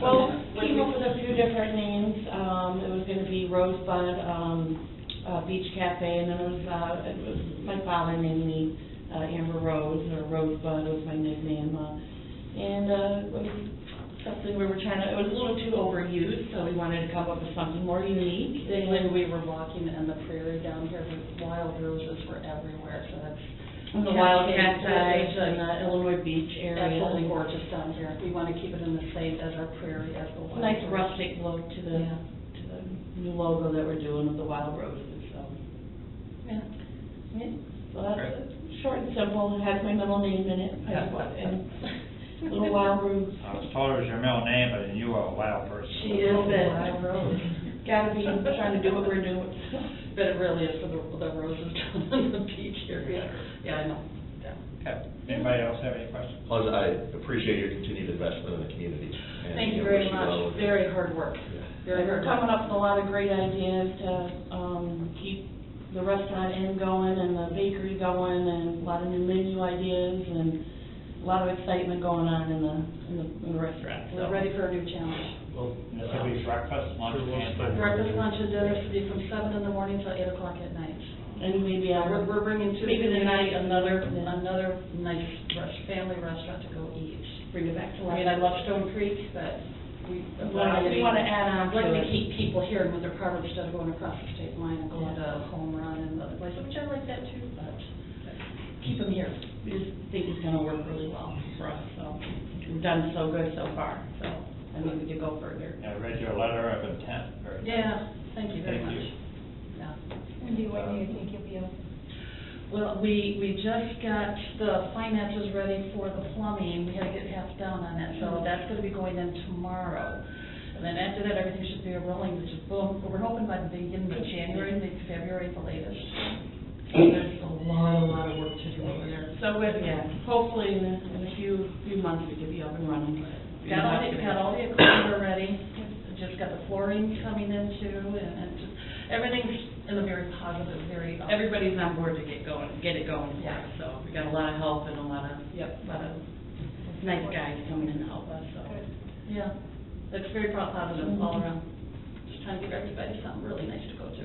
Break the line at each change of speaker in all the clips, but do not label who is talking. Well, came up with a few different names, um, it was gonna be Rosebud, um, uh, Beach Cafe, and then it was, uh, it was, my father named me, uh, Amber Rose, or Rosebud was my nickname, uh, and, uh, it was something we were trying to, it was a little too overused, so we wanted to come up with something more unique.
Then when we were walking in the prairie down here, the wild roses were everywhere, so that's.
And The Wild Cats
It's
Eyes
just
and the Illinois Beach area.
Absolutely gorgeous down here. We want to keep it in the same as our prairie, as the wild.
Nice
roses.
rustic look to the,
Yeah.
to the new logo that we're doing with the wild roses, so.
Yeah.
Yeah, So that's it. short and simple, it has my middle name in it, and little wild rose.
I was told it was your middle name, but you are a wild person.
She is it.
Wild rose.
Gotta be trying to do what we're doing.
But it really is for the, the roses down on the beach area. Yeah, I know. Yeah.
Okay. Anybody else have any questions?
Plus, I appreciate your continued investment in the community. and,
Thank you
know,
very
wish well
much.
with it.
Very hard work.
Yeah.
Very
We're
hard
coming
work.
up with a lot of great ideas to, um, keep the restaurant in going and the bakery going and a lot of new menu ideas and a lot of excitement going on in the, in the, in the restaurant, so.
We're ready for a new challenge.
Well,
This will be breakfast, lunch, and dinner.
Breakfast, lunch, and dinner should be from seven in the morning till eight o'clock at night.
And maybe I
We're, we're bringing to.
Maybe the night, another,
Another nice rest, family restaurant to go eat.
bring it back to
I
life.
mean, I love Stone Creek, but we.
We wanna- we wanna add on
I'd Like
to it.
to keep people here when they're part of, instead of going across the state line and going to Home Run and other places, which I like that too, but keep them here.
We just think it's gonna work really well for us, so, we've done so good so far, so, I think we could go further.
I read your letter of intent. Very good.
Yeah, thank you very
Thank you.
much. Yeah.
Wendy, when do you think you'll be able?
Well, we, we just got the finances ready for the plumbing, we had to get half down on that, so that's gonna be going in tomorrow. And then after that, everything should be rolling, which is boom, we're hoping by the beginning of January, maybe February at the latest. There's a lot, a lot of work to do over there.
So, we- yeah, hopefully in, a- in a few, few months, we could be up and running.
Got all the, got all the equipment already, just got the flooring coming in too, and, and just, everything's in a very positive, very. uh,
Everybody's on board to get going, get it going,
Yeah.
so, we got a lot of help and a lot of,
Yep, um,
lot of nice guys coming in to help us, so.
Yeah, it's very pro- positive all around. Just trying to give everybody something really nice to go to.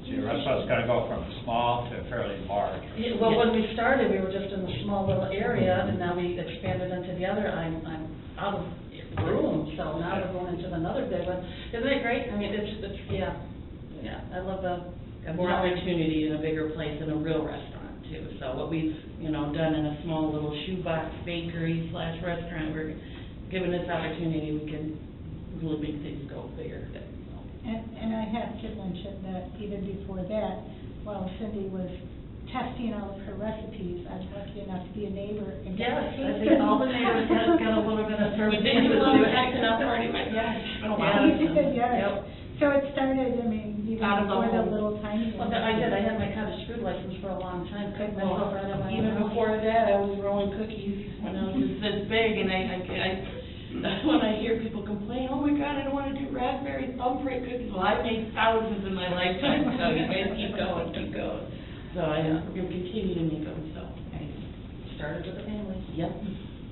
So your restaurant's gonna go from small to fairly large.
Yeah, Well, when we started, we were just in a small little area, and now we expanded into the other, I'm, I'm out of room, so now we're going into another big one. Isn't it great? I mean, it's, it's, yeah, yeah, I love the.
Got more opportunity in a bigger place in a real restaurant too, so what we've, you know, done in a small little shoebox bakery slash restaurant, we're given this opportunity, we can really make things go bigger.
And, and I have to mention that even before that, while Cindy was testing all of her recipes, I was lucky enough to be a neighbor. and-
Yes, I think all the neighbors got, got a little bit of
We
service.
did do a little acting up
already.
already, right? Been a while.
You did,
Yep.
Oh, yes. So it started, I mean, even
Out of the
before the
home.
little tiny.
Well, I did, I had my cottage food license for a long time, cooked myself right on my own.
Even before that, I was rolling cookies when I was this big, and I, I, I, when I hear people complain, oh my God, I don't wanna do raspberry thumbprint cookies, well, I made thousands in my lifetime, so you guys keep going, keep going. So I, I'm gonna continue to make them, so.
Started with a family.
Yep.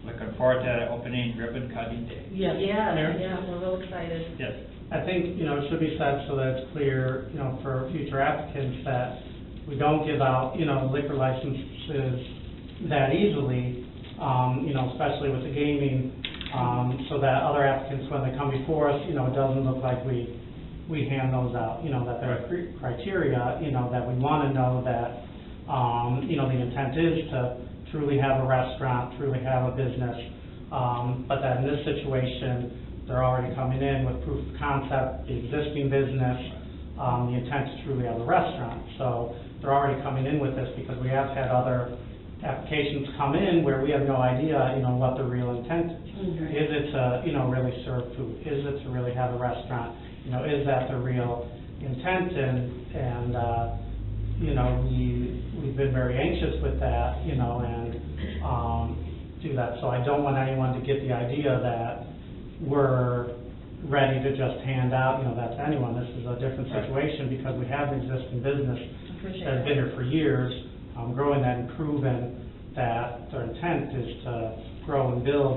Looking forward to that opening ribbon cutting day.
Yes.
Yeah, yeah, we're real excited.
Yes.
I think, you know, it should be said so that it's clear, you know, for future applicants that we don't give out, you know, liquor licenses that easily, um, you know, especially with the gaming, um, so that other applicants, when they come before us, you know, it doesn't look like we, we hand those out, you know, that there are cri- criteria, you know, that we want to know that, um, you know, the intent is to truly have a restaurant, truly have a business. Um, but that in this situation, they're already coming in with proof of concept, the existing business, um, the intent is truly have a restaurant. So they're already coming in with this because we have had other applications come in where we have no idea, you know, what the real intent is.
Mhm.
Is it to, you know, really serve food? Is it to really have a restaurant? You know, is that the real intent? And, and, uh, you know, we, we've been very anxious with that, you know, and, um, do that. So I don't want anyone to get the idea that we're ready to just hand out, you know, that to anyone. This is a different
Right.
situation because we have an existing business
Appreciate
that's been
that.
here for years, um, growing that and proven that their intent is to grow and build